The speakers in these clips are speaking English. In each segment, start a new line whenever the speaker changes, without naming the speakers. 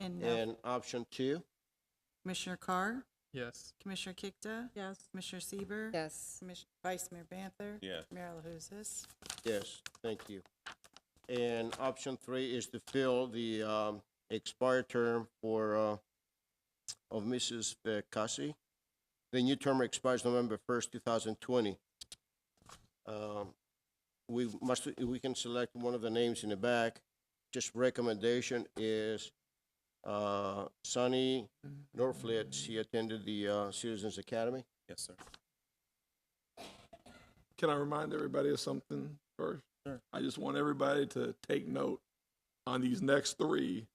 And now
And option two?
Commissioner Carr,
Yes.
Commissioner Kikta? Yes. Commissioner Sieber,
Yes.
Commis- Vice Mayor Banther?
Yes.
Mayor LaHousas?
Yes, thank you. And option three is to fill the, um, expired term for, uh, of Mrs. Cassie. The new term expires November first, two thousand twenty. Um, we must, we can select one of the names in the back. Just recommendation is, uh, Sunny Norflit. She attended the, uh, Citizens Academy.
Yes, sir.
Can I remind everybody of something first?
Sure.
I just want everybody to take note. On these next three,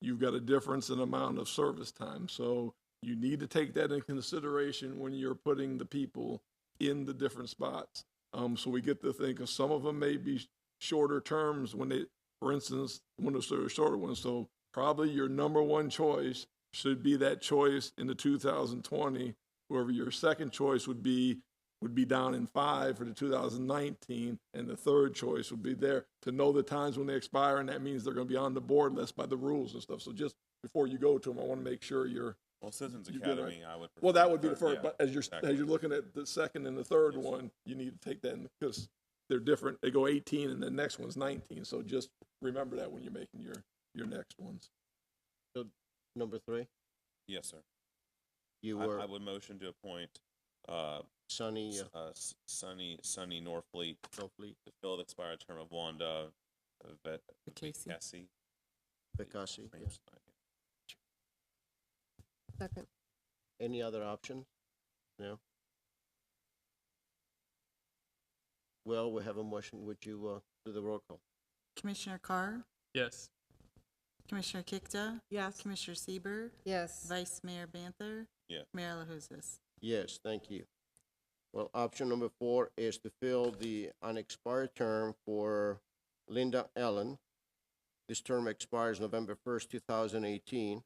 you've got a difference in amount of service time. So you need to take that in consideration when you're putting the people in the different spots. Um, so we get to think of some of them may be shorter terms when they, for instance, when those are shorter ones. So probably your number one choice should be that choice in the 2020. Whoever your second choice would be would be down in five for the 2019, and the third choice would be there to know the times when they expire, and that means they're going to be on the board list by the rules and stuff. So just before you go to them, I want to make sure you're.
Well, Citizens
You good, right?
Academy, I would.
Well,
prefer
that would be the
third,
first,
yeah,
but uh, as you're as
exactly.
you're looking at the second and the third
Yes.
one, you need to take that in because they're different. They go 18, and the next one's 19. So just remember that when you're making your your next ones.
Number three,
Yes, sir.
you
I, I
were
would motion to appoint, uh,
Sunny
S- uh, S- Sunny, Sunny Norfleet
Norflit
to fill the expired term of Wanda Vet.
Vicasi.
Vicasi.
Cassie.
Name's not-
Second.
Any other option? No? Well, we have a motion. Would you, uh, do the roll call?
Commissioner Carr,
Yes.
Commissioner Kikta? Yes. Commissioner Sieber,
Yes.
Vice Mayor Banther?
Yeah.
Mayor LaHousas?
Yes, thank you. Well, option number four is to fill the unexpired term for Linda Allen. This term expires November first, two thousand eighteen.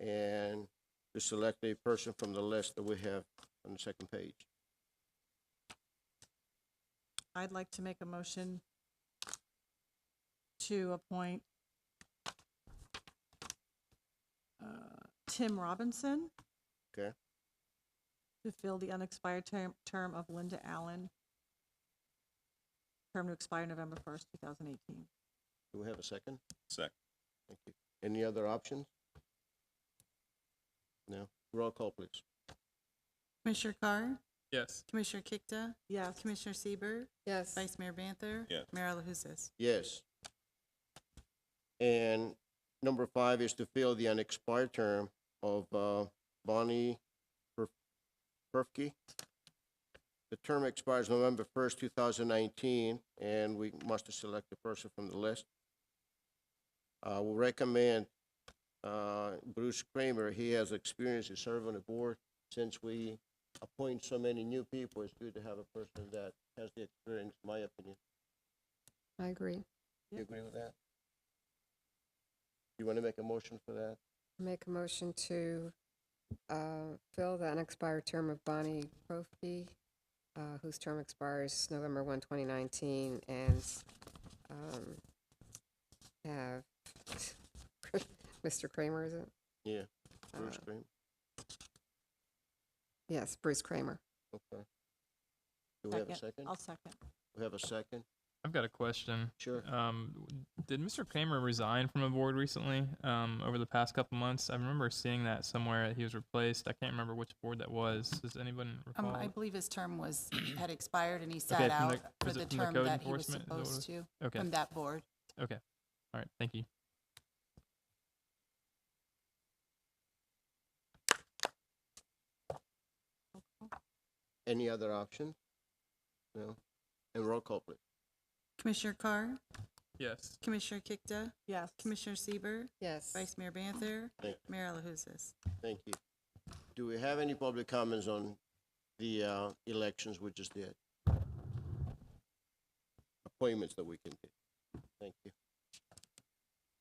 And to select a person from the list that we have on the second page.
I'd like to make a motion to appoint uh, Tim Robinson.
Okay.
To fill the unexpired term, term of Linda Allen. Term to expire November first, two thousand eighteen.
Do we have a second?
Second.
Thank you. Any other options? No? Roll call, please.
Commissioner Carr,
Yes.
Commissioner Kikta?
Yes.
Commissioner Sieber,
Yes.
Vice Mayor Banther?
Yes.
Mayor LaHousas?
Yes. And number five is to fill the unexpired term of uh, Bonnie Per- Perfke. The term expires November first, two thousand nineteen, and we must select a person from the list. I will recommend uh, Bruce Kramer. He has experience in serving on the board. Since we appoint so many new people, it's good to have a person that has the experience, in my opinion.
I agree.
You agree with that? You want to make a motion for that?
Make a motion to uh, fill the unexpired term of Bonnie Profi, uh, whose term expires November 1, 2019, and um, have Mr. Kramer, is it?
Yeah, Bruce
Uh,
Green,
Yes, Bruce Kramer.
okay. Do we have a second?
I'll second.
We have a second?
I've got a question.
Sure.
Um, w- did Mr. Kramer resign from a board recently? Um, over the past couple months, I remember seeing that somewhere. that He was replaced. I can't remember which board that was. Does anyone recall?
Um, I believe his term was, had expired and he
Okay,
sat
from
out
the-
for
was it
the
from the
term
code
that he was
enforcement? Is that what it
supposed to,
okay.
from that board.
All right. Thank you.
Any other option? No? And roll call, please.
Commissioner Carr,
Yes.
Commissioner Kikta?
Yes.
Commissioner Sieber,
Yes.
Vice Mayor Banther?
Thank
Mayor LaHousas?
Thank you. Do we have any public comments on the uh, elections we just did? Appointments that we can do. Thank you.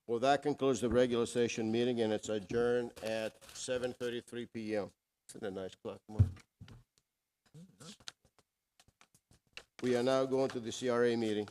Well, that concludes the regular session meeting, and it's adjourned at seven thirty-three PM. Isn't that a nice clock, Mark? We are now going to the CRA meeting.